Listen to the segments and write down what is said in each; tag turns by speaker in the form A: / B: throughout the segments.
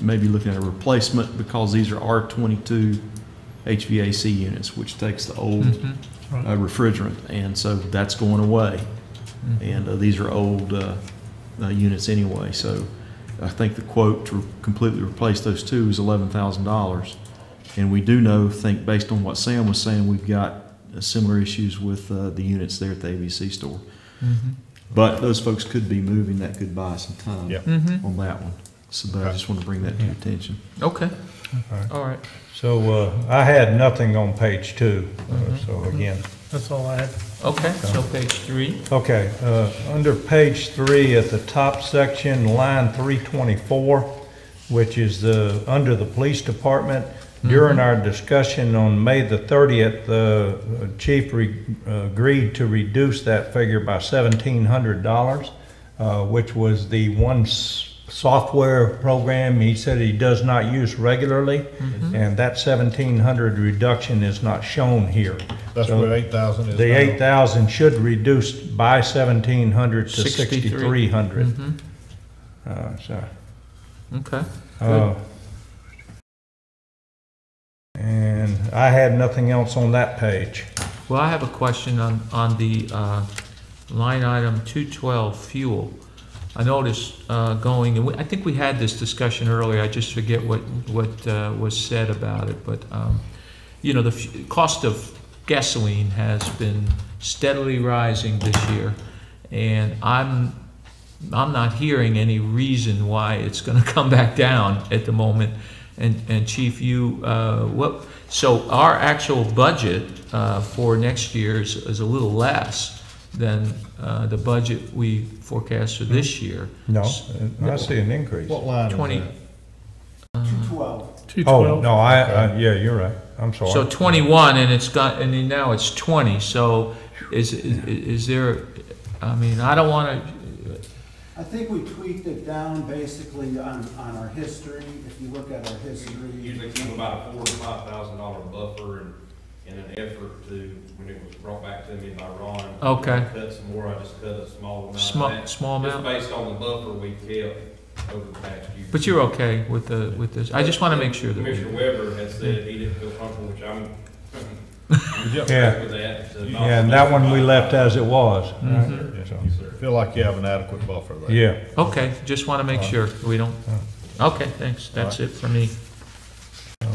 A: maybe looking at a replacement because these are R twenty-two HVAC units, which takes the old
B: Mhm.
A: uh, refrigerant, and so that's going away. And uh, these are old uh, uh, units anyway, so I think the quote to completely replace those two is eleven thousand dollars. And we do know, think based on what Sam was saying, we've got uh, similar issues with uh, the units there at the ABC store.
B: Mhm.
A: But those folks could be moving, that could buy some time
C: Yeah.
B: Mhm.
A: on that one. So, but I just want to bring that to your attention.
B: Okay,
C: Okay.
B: all right.
C: So uh, I had nothing on page two, uh, so again.
D: That's all I had.
B: Okay, so page three.
C: Okay, uh, under page three, at the top section, line 324, which is the, under the police department, during our discussion on May the 30th, the uh, chief re- uh, agreed to reduce that figure by $1,700, uh, which was the one s- software program he said he does not use regularly,
B: Mm-hmm.
C: and that 1,700 reduction is not shown here.
E: That's
C: So-
E: what eight thousand is
C: the
E: now.
C: eight thousand should reduce by seventeen hundred to
B: 63.
C: sixty-three Hmm. hundred.
B: Mhm.
C: Uh, so,
B: Mm-hmm. Okay,
C: uh, and I had nothing else on that page.
B: well, I have a question on, on the, uh, line item two twelve fuel. I noticed, uh, going, and we- I think we had this discussion earlier, I just forget what, what, uh, was said about it, but, um, you know, the fu- cost of gasoline has been steadily rising this year, and I'm, I'm not hearing any reason why it's going to come back down at the moment. And, and Chief, you, uh, what, so our actual budget uh, for next year is, is a little less than uh, the budget we forecast for this year.
C: No,
B: S-
C: uh, I see an increase.
E: What line is
B: Twenty,
E: that?
C: Oh,
D: 212.
C: no, I, I, yeah, you're right, I'm
B: so
C: sorry.
B: twenty-one, and it's got, and then now it's twenty, so is, is- is there, I mean, I don't want to,
F: I think we tweaked it down basically on, on our history, if you look at our history.
G: usually keep about a four to five thousand dollar buffer and, in an effort to, when it was brought back to me by Ron.
B: Okay.
G: Cut some more, I just cut a small amount. of
B: small,
G: that,
B: small
G: Just
B: amount?
G: based on the buffer we kept over the past year.
B: But you're okay with the, with this, I just want to make sure that. we-
G: Commissioner Weber had said he didn't feel comfortable, which I'm.
C: Yeah.
G: With that. so-
C: Yeah, and that one we left as it was. right? So,
G: Yes, sir.
E: Feel like you have an adequate buffer there.
C: Yeah,
B: Okay, just want to make
C: Uh,
B: sure we don't, okay, thanks, that's it for me.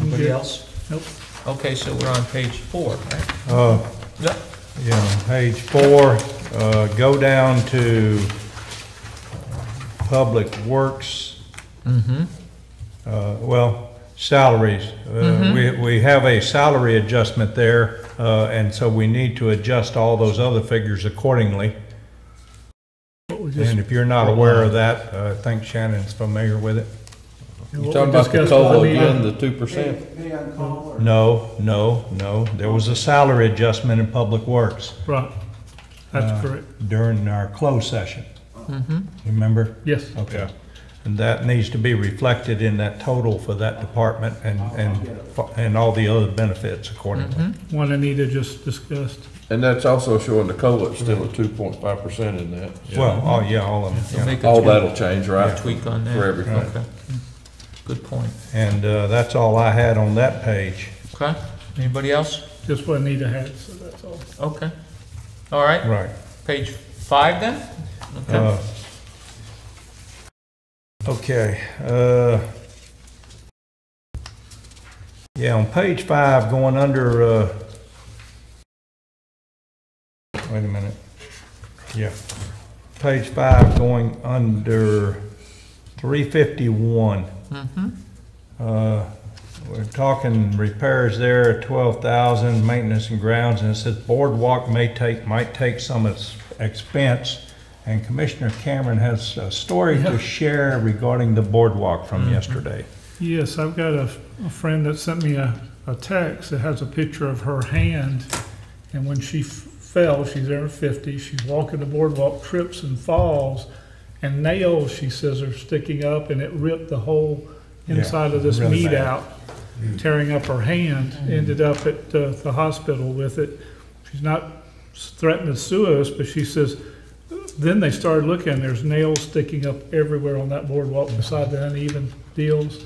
B: Anybody else?
D: Nope.
B: Okay, so we're on page four, right?
C: uh,
B: Yep.
C: Yeah, page four, uh, go down to Public Works,
B: Mm-hmm,
C: uh, well, salaries. Uh, We we have a salary adjustment there, uh, and so we need to adjust all those other figures accordingly.
D: What we just-
C: And if you're not aware of that, uh, I think Shannon's familiar with it.
D: what we
H: You're talking about the
D: discussed at
H: COLA
D: meeting.
H: again, the two
F: Pay,
H: percent?
F: pay on call or?
C: No, no, no, there was a salary adjustment in Public Works
D: Right,
C: Uh,
D: that's correct,
C: during our closed session,
B: mm-hmm,
C: remember?
D: yes.
C: Okay. And that needs to be reflected in that total for that department and, and, and all the other benefits accordingly.
B: mm-hmm,
D: One Anita just discussed.
H: And that's also showing the COLA is still at two point five percent in that.
C: Well, oh, yeah, all of
B: so
C: them, yeah.
B: make
H: All
B: a
H: that'll change,
B: tweak-
H: right?
B: tweak on that.
H: For everything.
B: Okay. Good point,
C: And, uh, that's all I had on that page.
B: okay, anybody else?
D: Just what Anita had, so that's all.
B: Okay, all right,
C: Right.
B: page five then? Okay,
C: Uh, Okay, uh, yeah, on page five, going under, uh, wait a minute. Yeah, page five, going under three fifty-one.
B: mm-hmm,
C: Uh, We're talking repairs there, twelve thousand, maintenance and grounds, and it says boardwalk may take, might take some ex- expense. And Commissioner Cameron has a story to share regarding the boardwalk from yesterday.
D: Yes, I've got a, a friend that sent me a, a text that has a picture of her hand. And when she f- fell, she's in her fifties, she's walking the boardwalk, trips and falls. And nails, she says, are sticking up and it ripped the whole
C: Yeah,
D: inside of this
C: really
D: meat
C: bad. Mm.
D: out, tearing up her hand. Ended up at uh, the hospital with it. She's not s- threatening to sue us, but she says, Then they started looking, there's nails sticking up everywhere on that boardwalk beside the uneven deals.